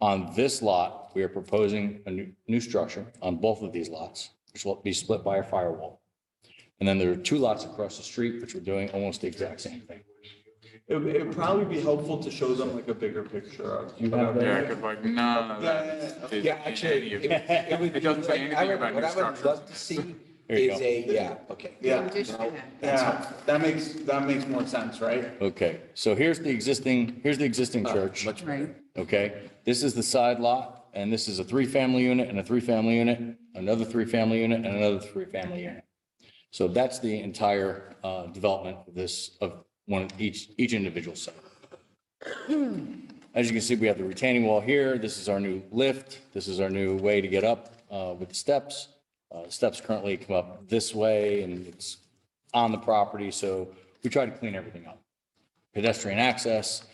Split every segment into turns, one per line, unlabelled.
On this lot, we are proposing a new, new structure on both of these lots, which will be split by a firewall. And then there are two lots across the street, which we're doing almost the exact same thing.
It would it'd probably be helpful to show them like a bigger picture of.
You have
of-
that?
Eric is like, no, that is.
Yeah, actually, it would- it would be.
It doesn't say anything
I would-
about new
What I would
structures.
love to see
There you
is
go.
a, yeah, okay.
Yeah,
Just do that.
yeah, that makes, that makes more sense, right?
Okay, so here's the existing, here's the existing church,
Much
Right.
okay? This is the side lot, and this is a three-family unit and a three-family unit, another three-family unit and another three-family unit. So that's the entire uh, development of this, of one, each, each individual site. As you can see, we have the retaining wall here. This is our new lift. This is our new way to get up uh, with the steps. Uh, Steps currently come up this way and it's on the property, so we try to clean everything up. Pedestrian access,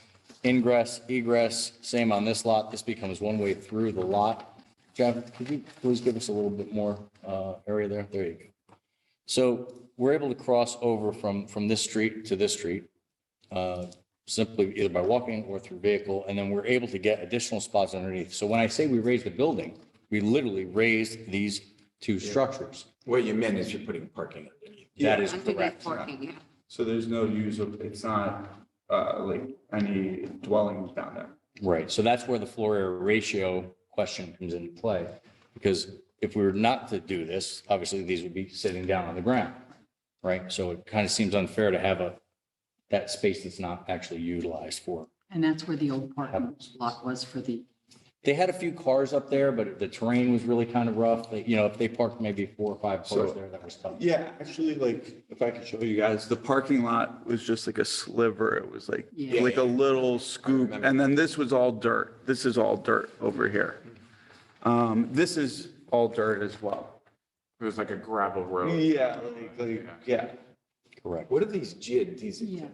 ingress, egress, same on this lot. This becomes one way through the lot. Jeff, could you please give us a little bit more uh, area there? There you go. So we're able to cross over from, from this street to this street uh, simply either by walking or through vehicle, and then we're able to get additional spots underneath. So when I say we raised the building, we literally raised these two structures.
What you meant is you're putting parking underneath.
That is
Underneath
correct.
parking, yeah.
So there's no use of, it's not uh like any dwellings down there.
Right, so that's where the floor area ratio question comes into play. Because if we were not to do this, obviously these would be sitting down on the ground, right? So it kind of seems unfair to have a, that space that's not actually utilized for.
And that's where the old parking lot was for the,
They had a few cars up there, but the terrain was really kind of rough. They- You know, if they parked maybe four or five cars
So-
there, that was tough.
Yeah, actually, like, if I could show you guys, the parking lot was just like a sliver. It was like,
Yeah.
like a little scoop. And then this was all dirt. This is all dirt over here. Um, this is all dirt as well.
It was like a gravel road.
Yeah, like, like, yeah.
Correct.
What are these jid, these?
yeah.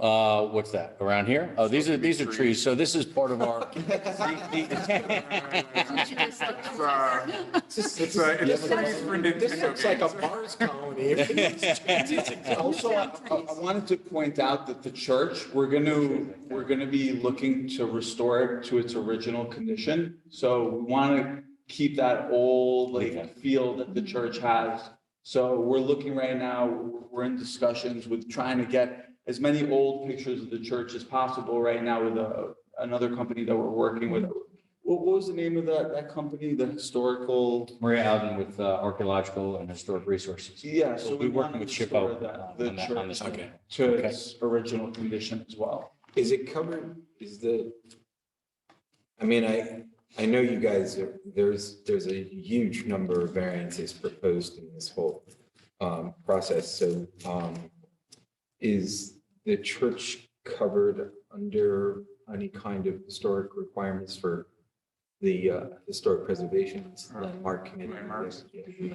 Uh, what's that, around here? Oh, these are, these are trees, so this is part of our.
It's just-
It's a, it's trees for
This this
Nintendo
looks like a
games.
Mars colony. It's
Also, I, I I wanted to point out that the church, we're going to, we're going to be looking to restore it to its original condition. So we want to keep that old like feel that the church has. So we're looking right now, we're in discussions with trying to get as many old pictures of the church as possible right now with a, another company that we're working with. What, what was the name of that, that company, the historical?
Maria Alden with uh, Archaeological and Historic Resources.
Yeah, so
We'll
we
be
want
working
to
with
restore
Shippo
that,
uh,
the
on that- on this.
church
one.
to
Okay.
its original condition as well.
Is it covered, is the, I mean, I, I know you guys, are- there's, there's a huge number of variances proposed in this whole um, process, so um, is the church covered under any kind of historic requirements for the uh, historic preservation landmark committee?
Landmarks.
Yeah.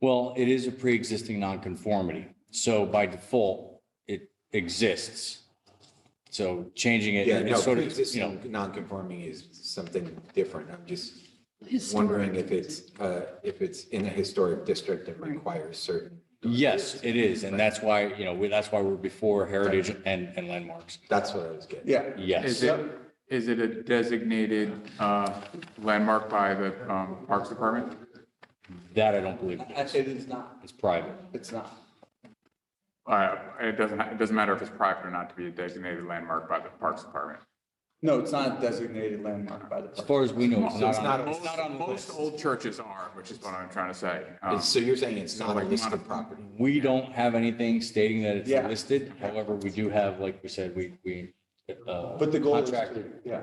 Well, it is a pre-existing nonconformity, so by default, it exists. So changing it,
Yeah, no,
it's sort of, you know,
pre-existing non-conforming is something different, I'm just
Historic.
wondering if it's, uh, if it's in a historic district that requires certain.
yes, it is, and that's why, you know, we- that's why we're before heritage and, and landmarks.
That's what I was getting.
Yeah.
Yes.
Is it, is it a designated uh, landmark by the um, Parks Department?
That I don't believe.
It is not,
It's private.
it's not.
Uh, It doesn't, it doesn't matter if it's private or not to be a designated landmark by the Parks Department.
No, it's not a designated landmark by the.
As
park.
far as we know, it's
So
not
it's
on,
not-
it's not on the
Most
list.
old churches are, which is what I'm trying to say. Um,
It's- So you're saying it's not a
like
listed
mono-
property?
We don't have anything stating that it's
Yeah.
listed. However, we do have, like we said, we, we. uh,
But the goal is, to-
Contracted
yeah,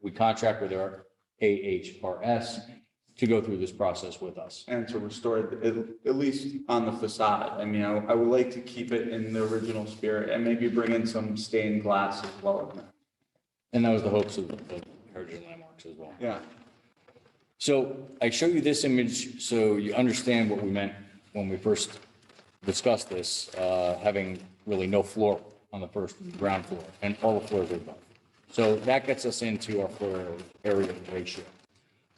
we contract with our AHRS to go through this process with us.
and to restore it, at- at least on the facade. I mean, I, I would like to keep it in the original spirit and maybe bring in some stained glass as well.
And that was the hopes of of Heritage and Landmarks as well.
Yeah.
So I show you this image so you understand what we meant when we first discussed this, uh, having really no floor on the first ground floor and all the floors are above. So that gets us into our floor area ratio.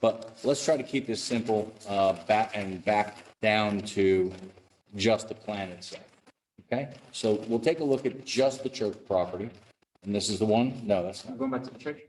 But let's try to keep this simple, uh, back and back down to just the plan itself. Okay? So we'll take a look at just the church property. And this is the one? No, that's not.
Going back to the church?